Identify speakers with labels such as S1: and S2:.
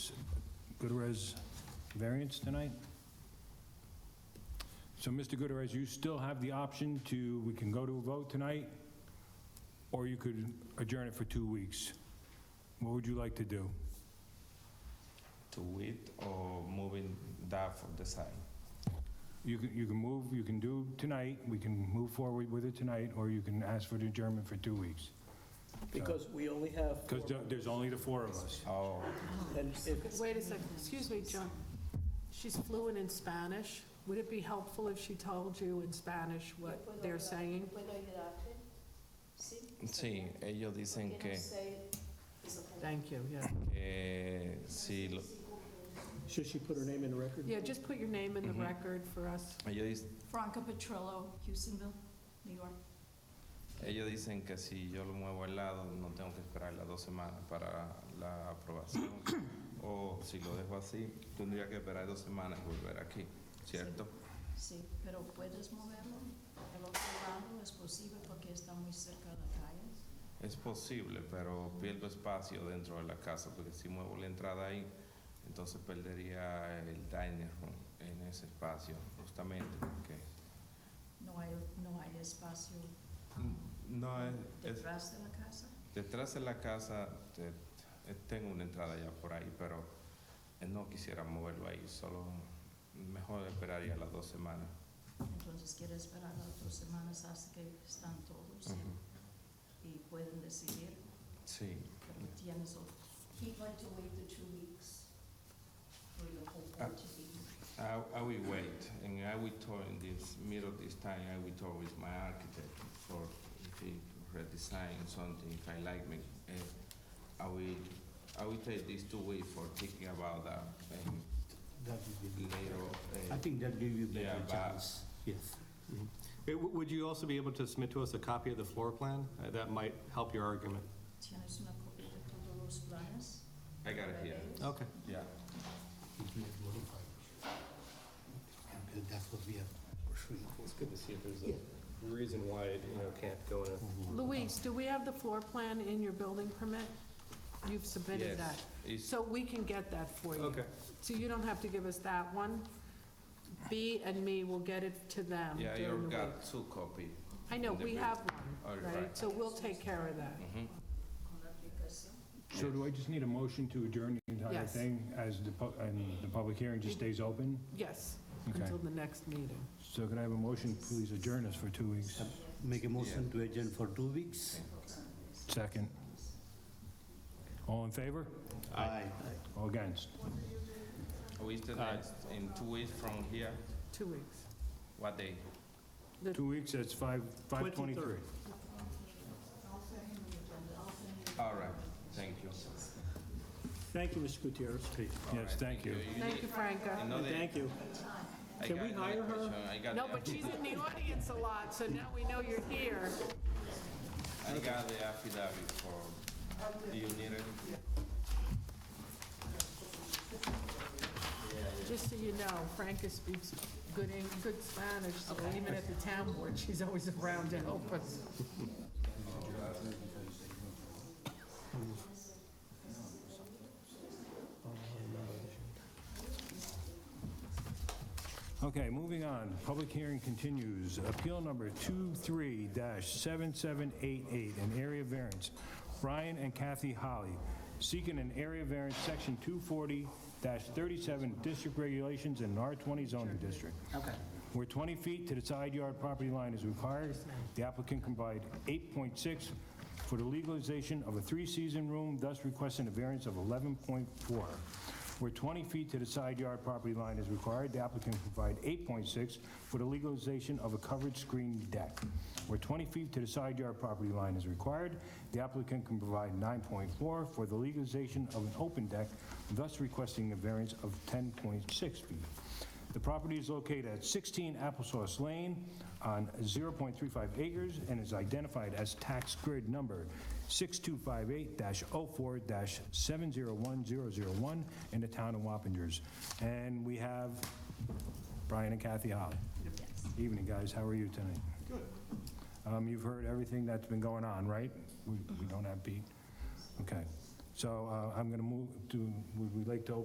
S1: Gutierrez variance tonight. So, Mr. Gutierrez, you still have the option to, we can go to a vote tonight, or you could adjourn it for two weeks. What would you like to do?
S2: to it or moving that for the side?
S1: You can, you can move, you can do tonight, we can move forward with it tonight, or you can ask for the adjournment for two weeks.
S3: Because we only have four
S1: Because there's only the four of us.
S2: Oh,
S3: And if,
S4: Wait a second, excuse me, John. She's fluent in Spanish. Would it be helpful if she told you in Spanish what they're saying?
S5: ¿Puedo ayudarte? Sí.
S2: sí, ellos dicen
S5: ¿Qué
S2: que,
S5: nos say is okay?
S4: Thank you, yeah.
S2: que sí, lo-
S3: should she put her name in the record?
S4: Yeah, just put your name in the
S2: Mhm.
S4: record for us.
S2: ellos, dis-
S6: Franca Petrillo, Houstonville, New York.
S2: ellos dicen que si yo lo muevo al lado no tengo que esperar las dos semanas para la aprobación o si lo dejo así tendría que esperar dos semanas y volver aquí, ¿cierto?
S6: Sí, pero puedes moverlo. El otro lado es posible porque está muy cerca de la calle.
S2: Es posible, pero pierdo espacio dentro de la casa porque si muevo la entrada ahí entonces perdería el dining room en ese espacio justamente porque
S6: No hay, no hay espacio
S2: No, es, es-
S6: detrás de la casa.
S2: detrás de la casa te- eh, tengo una entrada ya por ahí, pero eh, no quisiera moverlo ahí, solo mejor esperaría las dos semanas.
S6: Entonces quieres esperar las dos semanas hasta que están todos
S2: Ujú.
S6: y pueden decidir,
S2: Sí,
S6: pero tienes otro.
S5: He'd like to wait the two weeks for the whole board to be here.
S2: I, I will wait, and I will talk in this middle of this time. I will talk with my architect for if he redesign something. If I like me, eh, I will. I will take these two weeks for thinking about that and
S7: That would be-
S2: later. eh,
S7: I think that give you
S2: Yeah,
S7: better
S2: but-
S7: chance, yes.
S8: Uh, w- Would you also be able to submit to us a copy of the floor plan? Uh, That might help your argument.
S6: Tienes una copia de todos los planes.
S2: I got it here.
S8: Okay.
S2: Yeah.
S7: You can modify it. And That's what we have pursuing.
S8: It's good to see if there's a reason why it, you know, can't go in a
S4: Luis, do we have the floor plan in your building permit? You've submitted that.
S2: Yes. It's-
S4: So we can get that for you.
S8: Okay.
S4: So you don't have to give us that one. B and me will get it to them
S2: Yeah,
S4: during the
S2: you
S4: week.
S2: got two copy.
S4: I know,
S2: the
S4: we
S2: bill.
S4: have
S2: All
S4: one,
S2: right.
S4: right? So we'll take care of that.
S2: Mhm.
S1: So do I just need a motion to adjourn the entire
S4: Yes.
S1: thing as the, pu- and the public hearing just stays open?
S4: Yes,
S1: Okay.
S4: until the next meeting.
S1: So can I have a motion, please adjourn us for two weeks?
S7: Make a motion to adjourn for two weeks.
S1: Second. All in favor?
S7: Aye.
S1: All against?
S2: Who is the next? In two weeks from here,
S4: Two weeks.
S2: what day?
S1: Two weeks, that's five, 5:23.
S2: All right, thank you.
S3: Thank you, Mr. Gutierrez.
S1: Yes, thank you.
S4: Thank you, Franca.
S2: Another-
S3: Thank you.
S2: I
S3: Can
S2: got
S3: we
S2: another
S3: hire her?
S2: question. I got
S4: No,
S2: the-
S4: but she's in the audience a lot, so now we know you're here.
S2: I got the affidavit for, do you need it?
S4: Just so you know, Franca speaks good, Eng- good Spanish, so even at the town board, she's always around to help us.
S1: Okay, moving on. Public hearing continues. Appeal number 23-7788, an area variance. Brian and Kathy Holly seeking an area variance, section 240-37 district regulations in R20 zoning district.
S7: Okay.
S1: Where 20 feet to the side yard property line is required, the applicant can provide 8.6 for the legalization of a three-season room, thus requesting a variance of 11.4. Where 20 feet to the side yard property line is required, the applicant can provide 8.6 for the legalization of a covered screen deck. Where 20 feet to the side yard property line is required, the applicant can provide 9.4 for the legalization of an open deck, thus requesting a variance of 10.6 feet. The property is located at 16 Applesauce Lane on 0.35 acres and is identified as tax grid number 6258-04-701001 in the town of Wappingers. And we have Brian and Kathy Holly. Evening, guys. How are you tonight? Good. You've heard everything that's been going on, right? We we don't have Pete? Okay. So uh, I'm going to move to, would we like to open